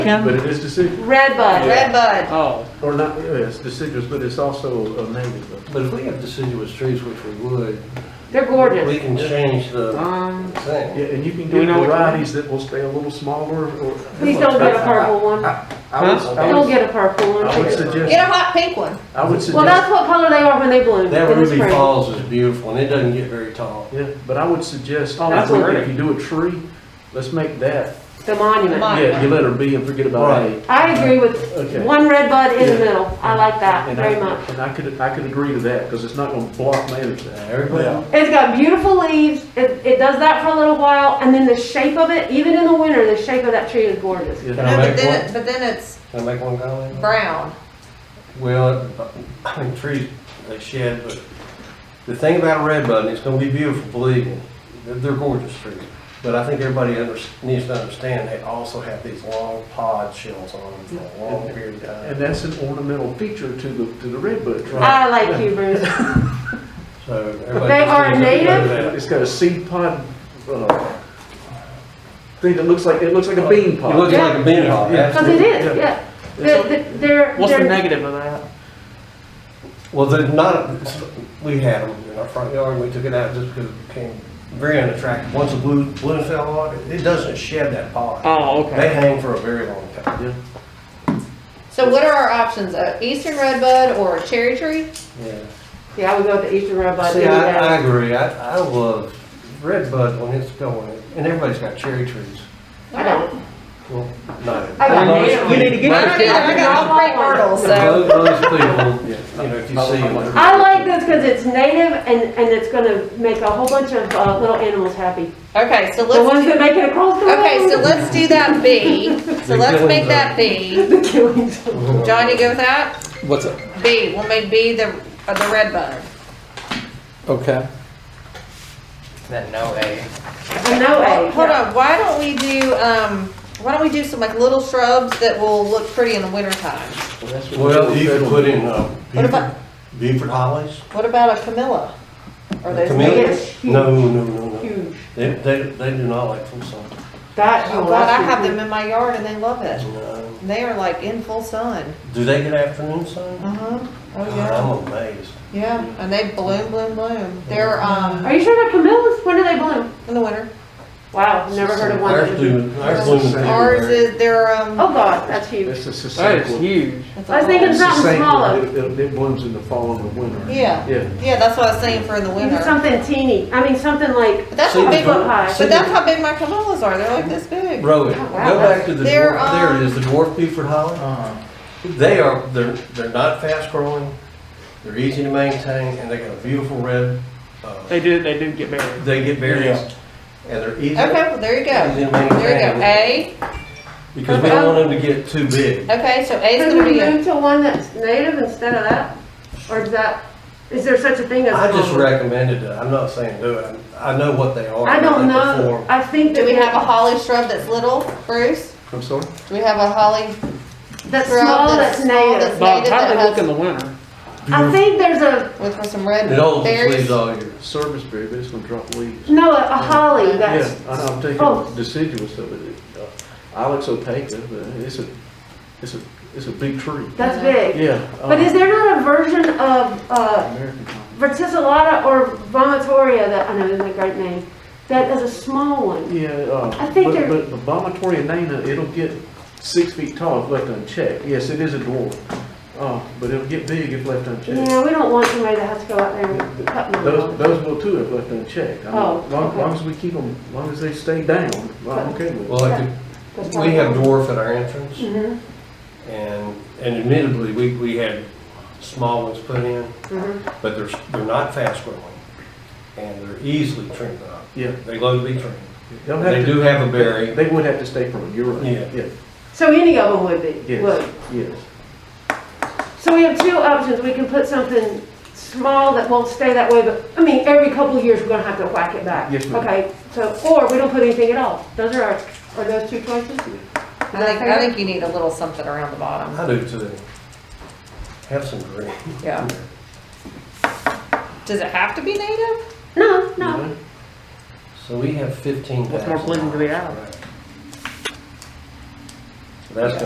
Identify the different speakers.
Speaker 1: But
Speaker 2: County?
Speaker 1: it is deciduous,
Speaker 3: Redbud.
Speaker 4: Red bud.
Speaker 2: Oh,
Speaker 1: or not, yeah, it's deciduous, but it's also a native.
Speaker 5: But if we have deciduous trees, which we would,
Speaker 3: They're
Speaker 5: we
Speaker 3: gorgeous.
Speaker 5: can change the
Speaker 2: um,
Speaker 5: thing.
Speaker 1: Yeah, and you can
Speaker 2: Do we
Speaker 1: get
Speaker 2: know which one?
Speaker 1: varieties that will stay a little smaller or.
Speaker 3: Please don't get a purple one.
Speaker 5: I was-
Speaker 2: Huh?
Speaker 5: I
Speaker 3: Don't
Speaker 5: was-
Speaker 3: get a purple
Speaker 1: I would
Speaker 3: one.
Speaker 1: suggest,
Speaker 4: Get a hot pink one.
Speaker 1: I would
Speaker 3: Well,
Speaker 1: suggest,
Speaker 3: that's what color they are when they bloom
Speaker 5: That
Speaker 3: in the
Speaker 5: Ruby
Speaker 3: spring.
Speaker 5: Falls is beautiful, and it doesn't get very tall.
Speaker 1: yeah, but I would suggest,
Speaker 2: Oh, that's
Speaker 1: if we-
Speaker 2: pretty.
Speaker 1: if you do a tree, let's make that,
Speaker 3: The monument.
Speaker 4: Mon-
Speaker 1: yeah, you let her be and forget about
Speaker 5: Right.
Speaker 1: A.
Speaker 3: I agree with
Speaker 1: Okay.
Speaker 3: one red bud in the
Speaker 1: Yeah.
Speaker 3: middle. I like that
Speaker 1: And I-
Speaker 3: very much.
Speaker 1: And I could, I could agree to that, because it's not gonna block
Speaker 5: Now,
Speaker 1: management.
Speaker 5: Everybody,
Speaker 3: It's got beautiful leaves. It, it does that for a little while, and then the shape of it, even in the winter, the shape of that tree is gorgeous.
Speaker 5: Can
Speaker 1: Yeah.
Speaker 5: I
Speaker 4: No, but
Speaker 5: make
Speaker 4: then,
Speaker 5: one?
Speaker 4: it- but then it's
Speaker 5: can I make one comment?
Speaker 4: brown.
Speaker 5: Well, I mean, trees, they shed, but the thing about a red bud, and it's gonna be beautiful, believe me, they're, they're gorgeous trees. But I think everybody under, needs to understand, they also have these long pod shells on them for a long period
Speaker 1: And
Speaker 5: of time.
Speaker 1: that's an ornamental feature to the, to the redbud tree.
Speaker 3: I like you, Bruce.
Speaker 5: So everybody
Speaker 3: They
Speaker 5: just
Speaker 3: are
Speaker 5: needs to know
Speaker 3: native?
Speaker 1: It's got a seed pod, uh, thing that looks like, it looks like a bean
Speaker 5: that. It
Speaker 1: pod.
Speaker 5: looks like a bean hog,
Speaker 1: Yeah.
Speaker 3: Because it
Speaker 5: absolutely.
Speaker 3: is, yeah. They're, they're- they're.
Speaker 2: what's the negative of that?
Speaker 5: Well, they're not, we had them in our front yard, and we took it out just because it became very unattractive. Once the blue, bloom fell on, it it doesn't shed that pod.
Speaker 2: Oh,
Speaker 5: They
Speaker 2: okay.
Speaker 5: hang for a very long time.
Speaker 4: So what are our options? A eastern red bud or a cherry tree?
Speaker 5: Yeah.
Speaker 3: Yeah, uh, I would go with the Eastern Red Bud any
Speaker 5: See, I, I
Speaker 3: day.
Speaker 5: agree. I, I love red bud when it's going, and everybody's got cherry trees.
Speaker 3: I don't.
Speaker 5: Well, no.
Speaker 3: I got native.
Speaker 5: Most-
Speaker 3: You need
Speaker 2: to get
Speaker 5: most-
Speaker 4: I don't either. I got all three myrtles, so.
Speaker 5: Most people, you know, if you see them. they're-
Speaker 3: I like this because it's native and, and it's gonna make a whole bunch of, uh, little animals happy.
Speaker 4: Okay, so
Speaker 3: The ones
Speaker 4: let's,
Speaker 3: that make it across the road.
Speaker 4: okay, so let's do that B. So
Speaker 5: The
Speaker 4: let's
Speaker 5: killings
Speaker 4: make that
Speaker 5: are-
Speaker 4: B.
Speaker 3: The killings.
Speaker 4: John, you go with that?
Speaker 6: What's up?
Speaker 4: B, we'll make B the, uh, the red bud.
Speaker 6: Okay.
Speaker 7: Then no A.
Speaker 3: I know
Speaker 4: Hey,
Speaker 3: A.
Speaker 4: Hold on, why don't we do, um, why don't we do some like little shrubs that will look pretty in the wintertime?
Speaker 5: Well, you could put in, uh,
Speaker 4: What about-
Speaker 5: Beaufort, Beaufort hollies.
Speaker 4: What about a camilla? Are those
Speaker 5: Camellias?
Speaker 4: native?
Speaker 5: No, no, no, no.
Speaker 3: Huge.
Speaker 5: They, they, they do not like full sun.
Speaker 3: That,
Speaker 4: Oh
Speaker 3: oh,
Speaker 4: God, I
Speaker 3: that's
Speaker 4: have
Speaker 3: huge.
Speaker 4: them in my yard and they love it.
Speaker 5: No.
Speaker 4: They are like in full sun.
Speaker 5: Do they get afternoon sun?
Speaker 4: Uh-huh. Oh,
Speaker 5: God,
Speaker 4: yeah.
Speaker 5: I'm amazed.
Speaker 4: Yeah, and they bloom, bloom, bloom. They're,
Speaker 5: Uh-huh.
Speaker 4: um,
Speaker 3: Are you sure they're camellias? When do they bloom?
Speaker 4: in the winter.
Speaker 3: Wow, never heard of one.
Speaker 5: Ours
Speaker 3: that was-
Speaker 5: do, ours bloom in
Speaker 4: Ours
Speaker 5: February.
Speaker 4: is, they're, um.
Speaker 3: Oh, God, that's huge.
Speaker 1: It's a
Speaker 2: That is
Speaker 1: sustainable.
Speaker 2: huge.
Speaker 4: it's
Speaker 3: I was
Speaker 4: a-
Speaker 3: thinking- It's not smaller.
Speaker 1: It, it- it blooms in the fall and the winter.
Speaker 4: Yeah,
Speaker 1: Yeah.
Speaker 4: yeah, that's what I was saying for in the
Speaker 3: You do
Speaker 4: winter.
Speaker 3: something teeny. I mean, something like
Speaker 4: But that's
Speaker 5: See
Speaker 4: how
Speaker 5: the
Speaker 4: big,
Speaker 3: foot
Speaker 4: but
Speaker 3: high.
Speaker 5: See
Speaker 4: that's
Speaker 5: the-
Speaker 4: how big my camillas are. They're like this big.
Speaker 5: Rowan,
Speaker 3: Oh,
Speaker 5: go
Speaker 3: wow.
Speaker 5: back to the
Speaker 4: They're,
Speaker 5: dwarf, there
Speaker 4: um, Uh-huh.
Speaker 5: it is, the dwarf Buford holly.
Speaker 7: Uh,
Speaker 5: They are, they're, they're not fast growing, they're easy to maintain, and they got a beautiful red, uh,
Speaker 2: They do, they do get buried.
Speaker 5: they get berries, and they're easy.
Speaker 4: Okay, well, there you go.
Speaker 5: easy to maintain.
Speaker 4: There you go. A.
Speaker 5: Because we don't want them to get too big.
Speaker 4: Okay, so A's
Speaker 3: Could
Speaker 4: gonna
Speaker 3: we
Speaker 4: be a,
Speaker 3: move to one that's native instead of that? Or is that, is there such a thing as?
Speaker 5: I just
Speaker 3: common?
Speaker 5: recommended it, I'm not saying do it, I know what they are.
Speaker 3: I don't
Speaker 5: what they
Speaker 3: know.
Speaker 5: perform.
Speaker 3: I think
Speaker 4: do
Speaker 3: that
Speaker 4: we have a holly shrub that's little, Bruce?
Speaker 1: I'm sorry?
Speaker 4: Do we have a holly?
Speaker 3: that's
Speaker 4: shrub
Speaker 3: small,
Speaker 4: that's
Speaker 3: that's
Speaker 4: small,
Speaker 3: native.
Speaker 4: that's-
Speaker 2: Bob,
Speaker 4: native
Speaker 2: how do they
Speaker 4: that
Speaker 2: look in the winter?
Speaker 3: I think there's a,
Speaker 4: With, with some red
Speaker 5: It all
Speaker 4: berries?
Speaker 5: leaves all year.
Speaker 1: Service berry, but it's gonna drop leaves.
Speaker 3: no, a holly
Speaker 1: Yeah,
Speaker 3: that's,
Speaker 1: I- I'm
Speaker 3: Oh.
Speaker 1: taking deciduous of it. Uh, Alex opaca, but it's a, it's a, it's a big tree.
Speaker 3: that's big.
Speaker 1: Yeah. uh,
Speaker 3: But is there not a version of, uh,
Speaker 1: American pine.
Speaker 3: verticillata or vomitoria that, I know isn't a great name, that is a small one?
Speaker 1: Yeah, uh.
Speaker 3: I think
Speaker 1: but-
Speaker 3: they're-
Speaker 1: But the vomitoria nana, it'll get six feet tall if left unchecked. Yes, it is a dwarf. Uh, but it'll get big if left unchecked.
Speaker 3: Yeah, we don't want somebody that has to go out there and cut them
Speaker 1: Those,
Speaker 3: off.
Speaker 1: those will too if left unchecked. I mean,
Speaker 3: Oh,
Speaker 1: Long,
Speaker 3: okay.
Speaker 1: long as we keep them, long as they stay down, I'm okay with it.
Speaker 5: Well, like,
Speaker 3: That's
Speaker 5: we have
Speaker 3: fine.
Speaker 5: dwarf at our entrance.
Speaker 3: Mhm,
Speaker 5: And, and admittedly, we, we had small ones put in,
Speaker 3: mhm.
Speaker 5: but they're, they're not fast growing. And they're easily trimmed up.
Speaker 1: Yeah.
Speaker 5: They love to be trimmed.
Speaker 1: They'll have
Speaker 5: They
Speaker 1: to-
Speaker 5: do have a berry.
Speaker 1: They would have to stay pruned, you're right.
Speaker 5: Yeah.
Speaker 1: Yeah,
Speaker 3: So any of them would be, would.
Speaker 1: yes, yes.
Speaker 3: So we have two options. We can put something small that won't stay that way, but, I mean, every couple of years, we're gonna have to whack it back.
Speaker 1: Yes, ma'am.
Speaker 3: Okay, so, or we don't put anything at all. Those are our, are those two choices?
Speaker 4: I think, I think you need a little something around the bottom,
Speaker 5: I do too. Have some green.
Speaker 4: yeah. Does it have to be native?
Speaker 3: No, no.
Speaker 5: So we have fifteen thousand.
Speaker 2: What more blue do we have?
Speaker 5: That's